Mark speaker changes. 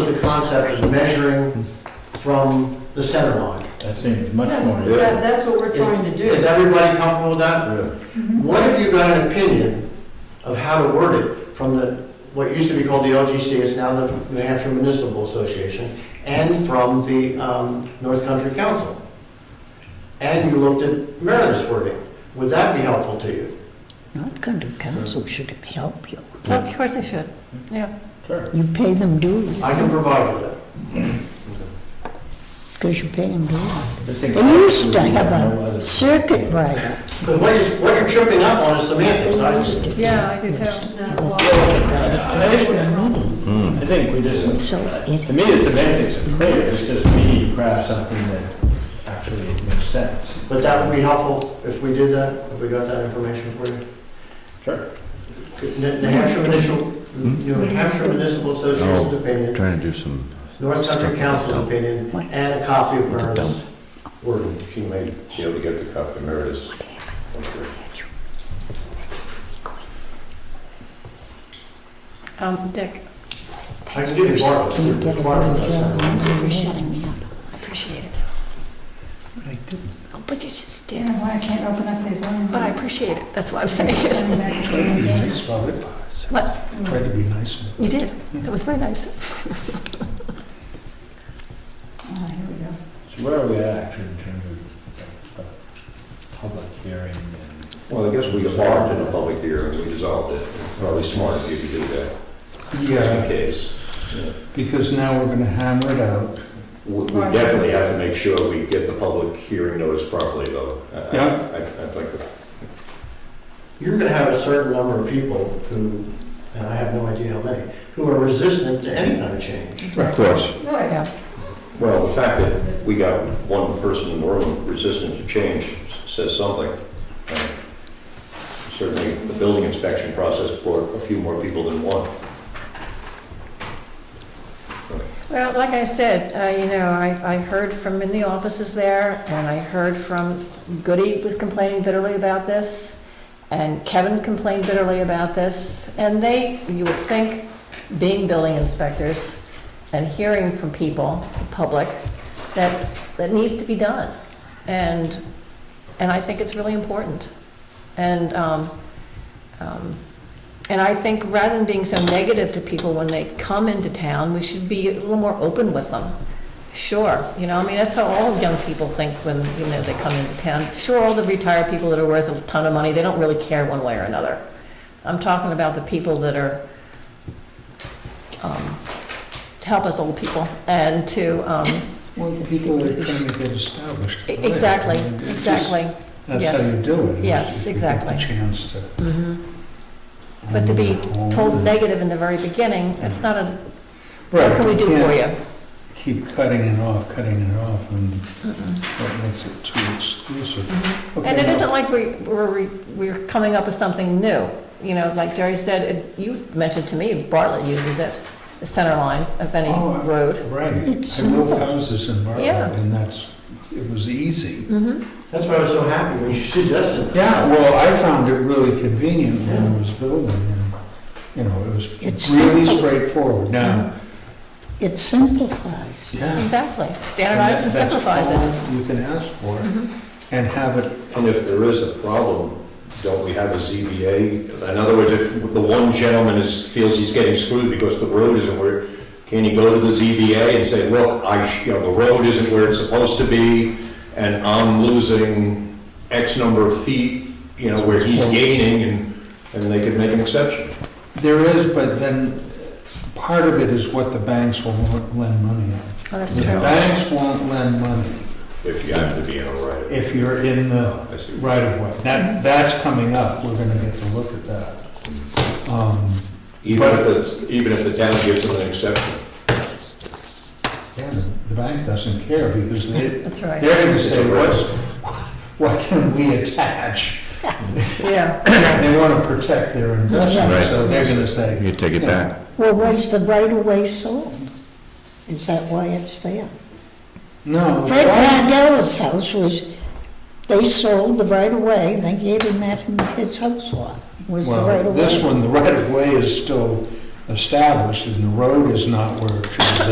Speaker 1: with the concept of measuring from the center line.
Speaker 2: That seems much
Speaker 3: That's,
Speaker 2: more,
Speaker 3: that- that's what we're trying to
Speaker 1: Is
Speaker 3: do. Mm-hmm.
Speaker 1: everybody comfortable with that? What if you got an opinion of how to word it from the, what used to be called the LGC, it's now the New Hampshire Municipal Association, and from the um, North Country Council? And you looked at Meredith's wording, would that be helpful to you?
Speaker 4: North Country Council should help you.
Speaker 3: Of course they should, yeah.
Speaker 2: sure.
Speaker 4: You pay them dues,
Speaker 1: I can provide you that.
Speaker 4: because you pay them dues.
Speaker 2: This thing-
Speaker 4: They used to have
Speaker 2: No
Speaker 4: a
Speaker 2: other-
Speaker 4: circuit rider.
Speaker 1: Because what you're, what you're tripping up on is semantics,
Speaker 4: They
Speaker 1: I
Speaker 4: used to.
Speaker 3: Yeah, I do too.
Speaker 4: Yes,
Speaker 3: No,
Speaker 4: it
Speaker 3: well-
Speaker 4: was circuit rider.
Speaker 2: I think we just,
Speaker 4: So it.
Speaker 2: to me, the semantics are clear, it's just me you craft something that actually makes sense.
Speaker 1: But that would be helpful if we did that, if we got that information for you.
Speaker 2: Sure.
Speaker 1: New Hampshire Municipal, New Hampshire Municipal Association's opinion,
Speaker 5: Trying to do some,
Speaker 1: North Country Council's opinion, and a copy of Myrna's wording.
Speaker 6: She may be able to get the copy of Meredith's.
Speaker 3: Um, Dick,
Speaker 1: I can give you Bartlett's,
Speaker 4: Can you get it
Speaker 1: Bartlett
Speaker 4: on the
Speaker 1: does that.
Speaker 4: job?
Speaker 7: for shutting me up. I appreciate it. Oh, But you just did.
Speaker 8: Yeah, why I can't open up these lines.
Speaker 7: But I appreciate it. That's why I'm saying it.
Speaker 9: Nice about it.
Speaker 7: What?
Speaker 9: Tried to be nice.
Speaker 7: You did. That was very nice.
Speaker 8: Oh, here we go.
Speaker 2: So where are we at actually in terms of uh, uh, public hearing and?
Speaker 6: Well, I guess we embarked in a public hearing, we dissolved it. Probably smart of you to do that, just in
Speaker 9: Yeah,
Speaker 6: case.
Speaker 9: because now we're gonna hammer it out.
Speaker 6: We we definitely have to make sure we get the public hearing notice properly, though. I- I-
Speaker 9: Yeah.
Speaker 6: I- I'd like to,
Speaker 1: You're gonna have a certain number of people who, and I have no idea how many, who are resistant to any kind of change.
Speaker 5: of course,
Speaker 8: Oh, yeah.
Speaker 6: well, the fact that we got one person in the room resistant to change says something. Uh, Certainly, the building inspection process brought a few more people than one.
Speaker 3: well, like I said, uh, you know, I, I heard from in the offices there, and I heard from Goody was complaining bitterly about this, and Kevin complained bitterly about this, and they, you would think, being building inspectors and hearing from people, public, that, that needs to be done. And, and I think it's really important. And, um, um, and I think rather than being so negative to people when they come into town, we should be a little more open with them. Sure, you know, I mean, that's how all young people think when, you know, they come into town. Sure, all the retired people that are worth a ton of money, they don't really care one way or another. I'm talking about the people that are, um, to help us old people and to, um,
Speaker 9: Well, the people that are trying to get established.
Speaker 3: e- exactly,
Speaker 9: I mean, it's just-
Speaker 3: exactly.
Speaker 9: That's
Speaker 3: Yes.
Speaker 9: how you do it.
Speaker 3: Yes,
Speaker 9: is you
Speaker 3: exactly.
Speaker 9: Get the chance to.
Speaker 3: Mhm.
Speaker 9: Mm-hmm.
Speaker 3: But to be told negative in the very beginning, it's not a, what can we do for you?
Speaker 9: Keep cutting it off, cutting it off, and that makes it too exclusive.
Speaker 3: And
Speaker 9: Okay,
Speaker 3: it
Speaker 9: now-
Speaker 3: isn't like we, we're, re- we're coming up with something new. You know, like Jerry said, it- you mentioned to me, Bartlett uses it, the center line of any
Speaker 9: Oh, I-
Speaker 3: road.
Speaker 9: Right,
Speaker 4: It's
Speaker 9: I built
Speaker 4: simple.
Speaker 9: houses in
Speaker 3: Yeah.
Speaker 9: Bartlett, and that's, it was easy.
Speaker 3: Mm-hmm.
Speaker 1: That's why I was so happy when you suggested that.
Speaker 9: Yeah, well, I found it really convenient when I was building, and, you know, it
Speaker 4: It's
Speaker 9: was really
Speaker 4: simple.
Speaker 9: straightforward. Now,
Speaker 4: It simplifies.
Speaker 9: yeah.
Speaker 3: Exactly. Standardize and simplifies it.
Speaker 9: You can ask for
Speaker 3: Mhm.
Speaker 9: it, and have it,
Speaker 6: And if there is a problem, don't we have a ZBA? In other words, if the one gentleman is, feels he's getting screwed because the road isn't where, can he go to the ZBA and say, look, I, sh- you know, the road isn't where it's supposed to be, and I'm losing X number of feet, you know, where he's gaining, and, and they could make an exception.
Speaker 9: there is, but then uh, part of it is what the banks will won't lend money on.
Speaker 3: Oh, that's
Speaker 9: The banks won't lend money
Speaker 6: If you have to be in a right.
Speaker 9: if you're in the
Speaker 6: I see.
Speaker 9: right of way. That, that's coming up, we're gonna get to look at that. Um,
Speaker 6: Even if it's, even if the town gives them an exception.
Speaker 9: Yeah, the bank doesn't care, because they,
Speaker 3: That's right.
Speaker 9: They're gonna
Speaker 6: It's
Speaker 9: say,
Speaker 6: a
Speaker 9: what,
Speaker 6: risk.
Speaker 9: what can we attach?
Speaker 3: Yeah.
Speaker 9: They wanna protect their investment,
Speaker 5: Right.
Speaker 9: so they're gonna say,
Speaker 5: you take it back.
Speaker 4: Well, was the right of way sold? Is that why it's there?
Speaker 9: no.
Speaker 4: Fred
Speaker 9: why-
Speaker 4: Mandel's house was, they sold the right of way, they gave him that, his house lot was the right
Speaker 9: Well,
Speaker 4: of
Speaker 9: this
Speaker 4: way.
Speaker 9: one, the right of way is still established, and the road is not where it should be.